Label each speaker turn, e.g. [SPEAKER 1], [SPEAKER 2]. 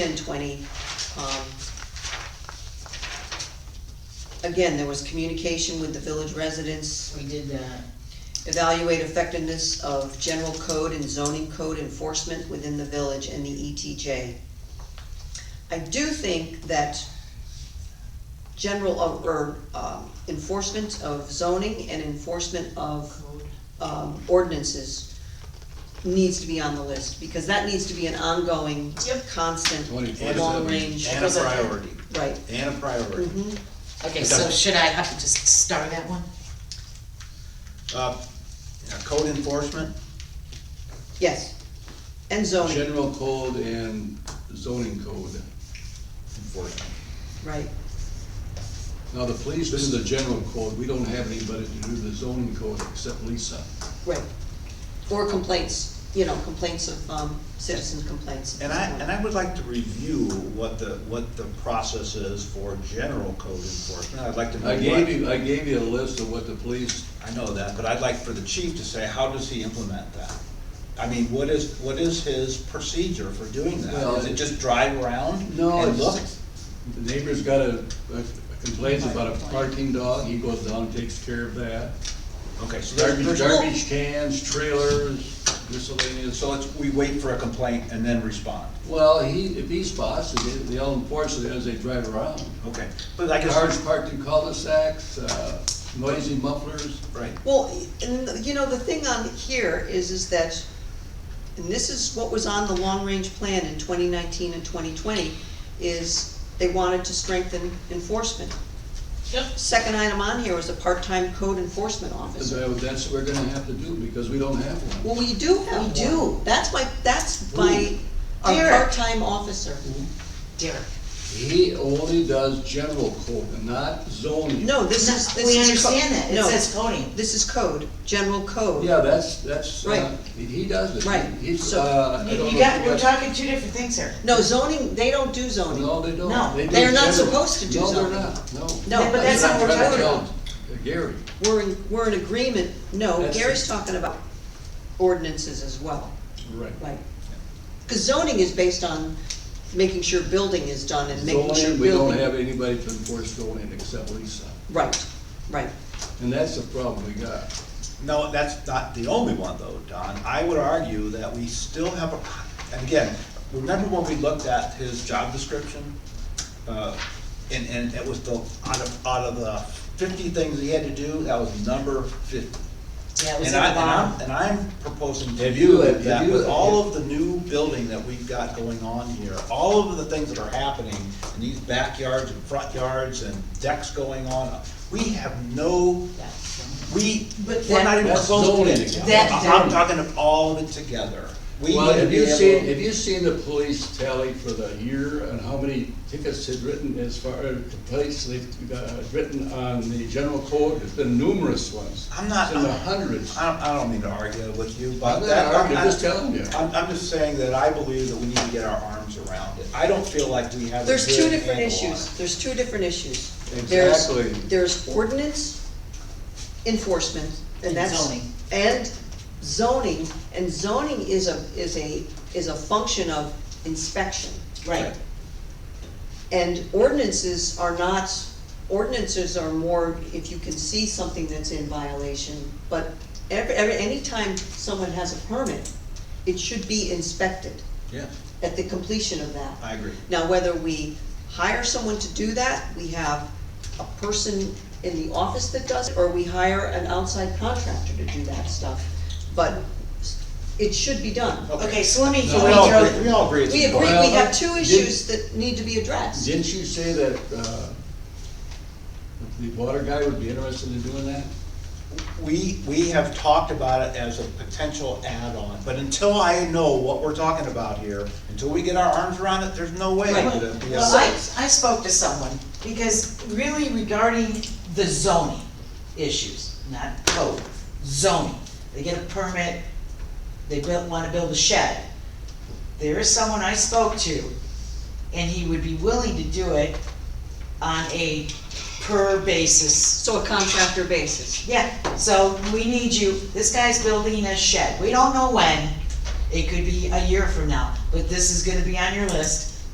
[SPEAKER 1] and twenty, um. Again, there was communication with the village residents,
[SPEAKER 2] We did that,
[SPEAKER 1] evaluate effectiveness of general code and zoning code enforcement within the village and the ETJ. I do think that general, uh, or, um, enforcement of zoning and enforcement of
[SPEAKER 2] code,
[SPEAKER 1] um, ordinances needs to be on the list, because that needs to be an ongoing,
[SPEAKER 2] Yep.
[SPEAKER 1] constant,
[SPEAKER 3] Twenty-four
[SPEAKER 1] long
[SPEAKER 3] seven.
[SPEAKER 1] range,
[SPEAKER 3] And a priority,
[SPEAKER 1] right.
[SPEAKER 3] and a priority.
[SPEAKER 1] Mhm.
[SPEAKER 2] okay, so should I have to just star that one?
[SPEAKER 3] Uh, now, code enforcement,
[SPEAKER 1] Yes, and zoning,
[SPEAKER 3] general code and zoning code enforcement.
[SPEAKER 1] right,
[SPEAKER 3] Now, the police, this is the general code, we don't have anybody to do the zoning code except Lisa.
[SPEAKER 1] right. Or complaints, you know, complaints of, um, citizens complaints.
[SPEAKER 4] And I, and I would like to review what the, what the process is for general code enforcement. I'd like to know
[SPEAKER 3] I gave
[SPEAKER 4] what,
[SPEAKER 3] you, I gave you a list of what the police,
[SPEAKER 4] I know that, but I'd like for the chief to say, how does he implement that? I mean, what is, what is his procedure for doing that?
[SPEAKER 3] Well,
[SPEAKER 4] Is it just drive around
[SPEAKER 3] No,
[SPEAKER 4] and
[SPEAKER 3] it's-
[SPEAKER 4] look?
[SPEAKER 3] the neighbor's got a, complains about a parking dog, he goes down, takes care of that.
[SPEAKER 4] Okay, so
[SPEAKER 3] Garbage,
[SPEAKER 4] there's, there's,
[SPEAKER 3] garbage cans, trailers, miscellaneous.
[SPEAKER 4] so it's, we wait for a complaint and then respond.
[SPEAKER 3] Well, he, if he spots, it, they- they'll enforce it as they drive around.
[SPEAKER 4] Okay, but I
[SPEAKER 3] Cars
[SPEAKER 4] guess,
[SPEAKER 3] parked in cul-de-sacs, uh, noisy mufflers.
[SPEAKER 4] right,
[SPEAKER 1] Well, and, you know, the thing on here is, is that, and this is what was on the long-range plan in twenty nineteen and twenty twenty, is they wanted to strengthen enforcement.
[SPEAKER 2] Yep.
[SPEAKER 1] Second item on here was a part-time code enforcement officer.
[SPEAKER 3] So That's what we're gonna have to do, because we don't have one.
[SPEAKER 1] Well, we do have
[SPEAKER 2] We
[SPEAKER 1] one.
[SPEAKER 2] do.
[SPEAKER 1] That's my, that's my, our
[SPEAKER 2] Derek.
[SPEAKER 1] part-time officer.
[SPEAKER 2] Derek,
[SPEAKER 3] He only does general code, not zoning.
[SPEAKER 1] No, this is, this is.
[SPEAKER 2] we
[SPEAKER 1] co-
[SPEAKER 2] understand that, it
[SPEAKER 1] no,
[SPEAKER 2] says coding,
[SPEAKER 1] This is code, general code.
[SPEAKER 3] Yeah, that's, that's, uh,
[SPEAKER 1] Right.
[SPEAKER 3] he does it.
[SPEAKER 1] Right.
[SPEAKER 3] He's,
[SPEAKER 1] So-
[SPEAKER 3] uh, I
[SPEAKER 2] you,
[SPEAKER 3] don't
[SPEAKER 2] you
[SPEAKER 3] know.
[SPEAKER 2] got,
[SPEAKER 3] if
[SPEAKER 2] we're
[SPEAKER 3] he
[SPEAKER 2] talking two different things here.
[SPEAKER 1] No, zoning, they don't do
[SPEAKER 3] does-
[SPEAKER 1] zoning.
[SPEAKER 3] No, they don't.
[SPEAKER 2] No,
[SPEAKER 3] do
[SPEAKER 1] they're not
[SPEAKER 3] general.
[SPEAKER 1] supposed to do
[SPEAKER 3] No,
[SPEAKER 1] zoning.
[SPEAKER 3] they're not, no.
[SPEAKER 1] No,
[SPEAKER 2] but that's not what we're
[SPEAKER 3] I'm trying to
[SPEAKER 2] talking
[SPEAKER 3] tell
[SPEAKER 2] about.
[SPEAKER 3] Gary,
[SPEAKER 1] We're in, we're in agreement, no,
[SPEAKER 3] That's-
[SPEAKER 1] Gary's talking about ordinances as well,
[SPEAKER 3] right.
[SPEAKER 1] right? Cause zoning is based on making sure building is done and making sure
[SPEAKER 3] Zoning, we don't
[SPEAKER 1] building.
[SPEAKER 3] have anybody to enforce zoning except Lisa,
[SPEAKER 1] Right, right,
[SPEAKER 3] and that's the problem we got.
[SPEAKER 4] No, that's not the only one though, Don. I would argue that we still have a, and again, remember when we looked at his job description? Uh, And, and it was the, out of, out of the fifty things he had to do, that was number fifty.
[SPEAKER 2] Yeah, it was
[SPEAKER 4] And
[SPEAKER 2] at
[SPEAKER 4] I,
[SPEAKER 2] the
[SPEAKER 4] and I'm,
[SPEAKER 2] bottom.
[SPEAKER 4] and I'm proposing to
[SPEAKER 3] If
[SPEAKER 4] you
[SPEAKER 3] you- if
[SPEAKER 4] that
[SPEAKER 3] you-
[SPEAKER 4] with all of the new building that we've got going on here, all of the things that are happening, and these backyards and front yards and decks going on, we have no we,
[SPEAKER 2] But
[SPEAKER 4] we're not
[SPEAKER 2] that-
[SPEAKER 4] even
[SPEAKER 3] That's
[SPEAKER 4] close to
[SPEAKER 3] zoning.
[SPEAKER 4] it.
[SPEAKER 2] That-
[SPEAKER 4] I'm talking of all of it together. We
[SPEAKER 3] Well,
[SPEAKER 4] need to
[SPEAKER 3] have
[SPEAKER 4] be
[SPEAKER 3] you
[SPEAKER 4] able-
[SPEAKER 3] seen, have you seen the police tally for the year and how many tickets had written as far, uh, the police, they've uh, written on the general code? It's been numerous ones.
[SPEAKER 4] I'm not-
[SPEAKER 3] It's in the hundreds.
[SPEAKER 4] I don't, I don't mean to argue with you,
[SPEAKER 3] I'm
[SPEAKER 4] but
[SPEAKER 3] not
[SPEAKER 4] that.
[SPEAKER 3] arguing,
[SPEAKER 4] I-
[SPEAKER 3] I'm just telling you.
[SPEAKER 4] I'm, I'm just saying that I believe that we need to get our arms around it. I don't feel like we have a
[SPEAKER 1] there's two
[SPEAKER 4] good
[SPEAKER 1] different
[SPEAKER 4] handle on
[SPEAKER 1] issues,
[SPEAKER 4] it.
[SPEAKER 1] there's two different issues. There's-
[SPEAKER 3] Exactly.
[SPEAKER 1] There's ordinance enforcement, and
[SPEAKER 2] And
[SPEAKER 1] that's.
[SPEAKER 2] zoning.
[SPEAKER 1] And zoning, and zoning is a, is a, is a function of inspection.
[SPEAKER 2] Right,
[SPEAKER 1] And ordinances are not, ordinances are more if you can see something that's in violation, but every, every, anytime someone has a permit, it should be inspected
[SPEAKER 4] Yeah,
[SPEAKER 1] at the completion of that.
[SPEAKER 4] I agree.
[SPEAKER 1] Now, whether we hire someone to do that, we have a person in the office that does it, or we hire an outside contractor to do that stuff, but it should be done.
[SPEAKER 2] okay, so let me,
[SPEAKER 3] No,
[SPEAKER 2] let
[SPEAKER 4] We
[SPEAKER 2] me
[SPEAKER 3] we
[SPEAKER 4] all
[SPEAKER 2] throw,
[SPEAKER 4] agree, we all agree it's
[SPEAKER 1] We agree, we
[SPEAKER 4] important.
[SPEAKER 1] have two
[SPEAKER 3] Well, did-
[SPEAKER 1] issues that need to be addressed.
[SPEAKER 3] Didn't you say that, uh, the water guy would be interested in doing that?
[SPEAKER 4] We, we have talked about it as a potential add-on, but until I know what we're talking about here, until we get our arms around it, there's no way
[SPEAKER 1] Right.
[SPEAKER 4] to be. a-
[SPEAKER 2] Well, I, I spoke to someone, because really regarding the zoning issues, not code, zoning. They get a permit, they built, wanna build a shed. There is someone I spoke to, and he would be willing to do it on a per basis.
[SPEAKER 1] So a contractor basis.
[SPEAKER 2] Yeah, so we need you, this guy's building a shed, we don't know when, it could be a year from now, but this is gonna be on your list.